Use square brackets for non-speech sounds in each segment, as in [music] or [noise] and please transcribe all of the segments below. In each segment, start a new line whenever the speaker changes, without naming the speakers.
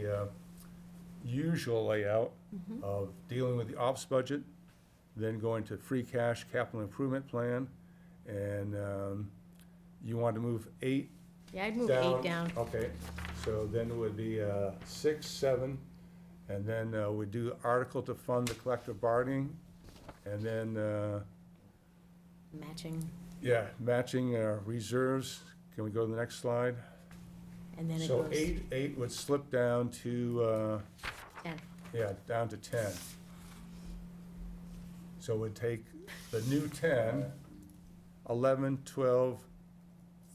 the uh, usual layout
Mm-hmm.
of dealing with the ops budget, then going to free cash capital improvement plan, and um, you want to move eight
Yeah, I'd move eight down.
Okay, so then it would be uh, six, seven, and then uh, we do article to fund the collective bargaining, and then, uh,
Matching,
yeah, matching uh, reserves. Can we go to the next slide?
and then it
So
goes
eight, eight would slip down to, uh,
ten.
yeah, down to ten. So we'd take the new ten, eleven, twelve,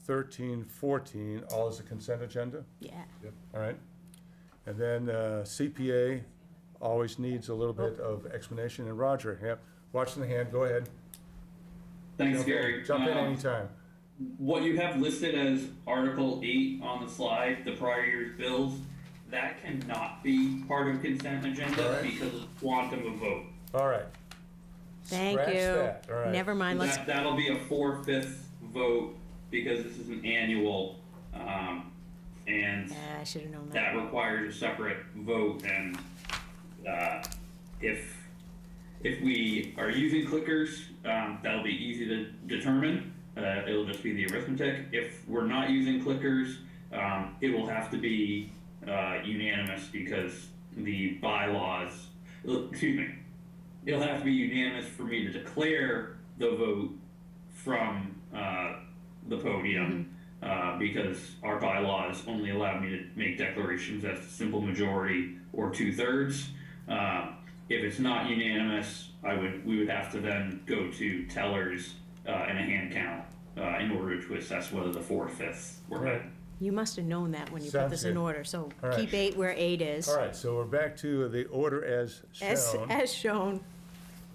thirteen, fourteen, all as a consent agenda?
Yeah,
All right. And then uh, CPA always needs a little bit of explanation, and Roger, yeah, watching the hand, go ahead.
Thanks, Gary.
Jump in
Um,
anytime.
What you have listed as Article eight on the slide, the prior year's bills, that cannot be part of consent agenda
Alright.
because of quantum of vote.
All right.
thank
Scratch
you.
that, all right.
Never mind, let's,
That, that'll be a four-fifths vote because this is an annual, um, and
yeah, I should have known
that
that.
requires a separate vote and, uh, if, if we are using clickers, um, that'll be easy to determine. Uh, it'll just be the arithmetic. If we're not using clickers, um, it will have to be, uh, unanimous because the bylaws, excuse me, it'll have to be unanimous for me to declare the vote from uh, the podium uh, because our bylaws only allow me to make declarations as to simple majority or two thirds. Uh, if it's not unanimous, I would we would have to then go to tellers uh, and a hand count uh, in order to assess whether the four fifths were
Right.
You must have known that when you put
Sounds
this in
good.
order, so
All right.
keep eight where eight is.
All right, so we're back to the order as
As,
shown.
as shown,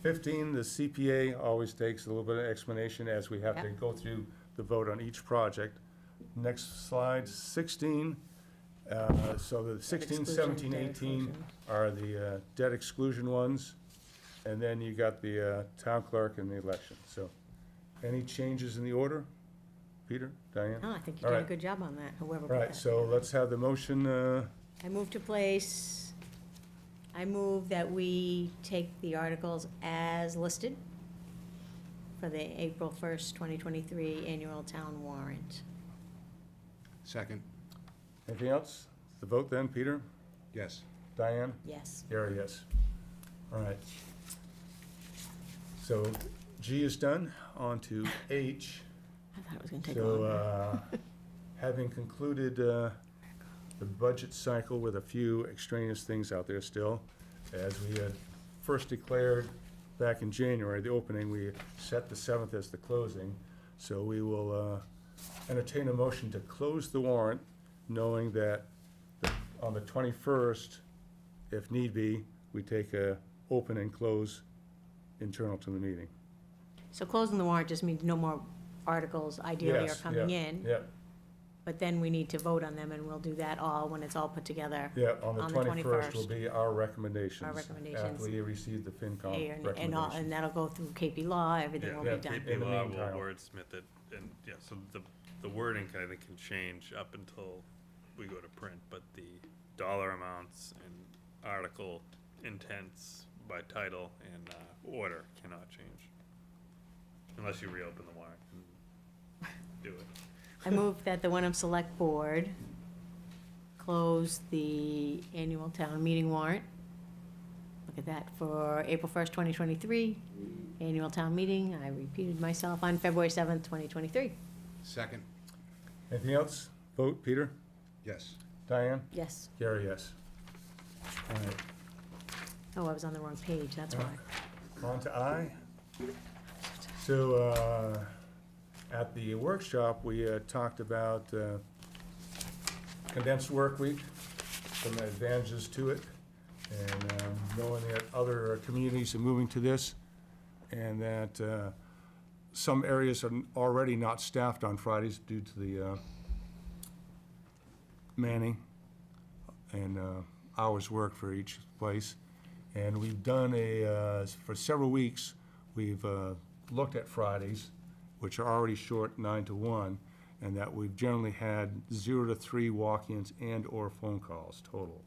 Fifteen, the CPA always takes a little bit of explanation as we have to
Yep.
go through the vote on each project. Next slide, sixteen. uh, So the sixteen,
exclusion,
seventeen,
debt
eighteen
exclusion.
are the uh, debt exclusion ones. And then you got the uh, town clerk and the election. So any changes in the order? Peter, Diane?
no, Oh, I think you
All
did a
right.
good job on that, whoever
All
put
right,
that.
so let's have the motion, uh,
I move to place, I move that we take the articles as listed for the April first, twenty twenty-three annual town warrant.
Second,
anything else? The vote then, Peter,
yes.
Diane?
Yes,
Gary, yes. All right. So G is done, on to H.
I thought it was gonna take
So,
longer. [laughs]
uh, having concluded uh, the budget cycle with a few extraneous things out there still, as we had first declared back in January, the opening, we set the 7th as the closing. So we will uh, entertain a motion to close the warrant, knowing that the- on the 21st, if need be, we take a open and close internal to the meeting.
So closing the warrant just means no more articles ideally are
Yes,
coming
yeah,
in,
Yeah,
but then we need to vote on them, and we'll do that all when it's all put together.
Yeah, on the
On the
twenty-first will
21st.
be our recommendations.
Our recommendations.
After we receive the FinCom
And, and all,
uh, recommendations.
and that'll go through KP Law, everything
Yeah.
will be
Yeah,
done.
in
KP
the
Law will
meantime.
wordsmith it, and, yeah, so the, the wording kind of can change up until we go to print, but the dollar amounts and article intents by title and, uh, order cannot change. Unless you reopen the warrant and do it.
I move that the Wenham Select Board close the annual town meeting warrant. Look at that, for April first, twenty twenty-three, annual town meeting, I repeated myself, on February seventh, twenty twenty-three.
Second,
Anything else? Vote, Peter?
yes.
Diane?
Yes,
Gary, yes. All right,
oh, I was on the wrong page, that's why.
On to I. So, uh, at the workshop, we uh, talked about uh, condensed work week, some advantages to it, and um, knowing that other communities are moving to this, and that uh, some areas are already not staffed on Fridays due to the uh, manning and uh, hours worked for each place. And we've done a, uh, for several weeks, we've uh, looked at Fridays, which are already short nine to one, and that we've generally had zero to three walk-ins and/or phone calls total.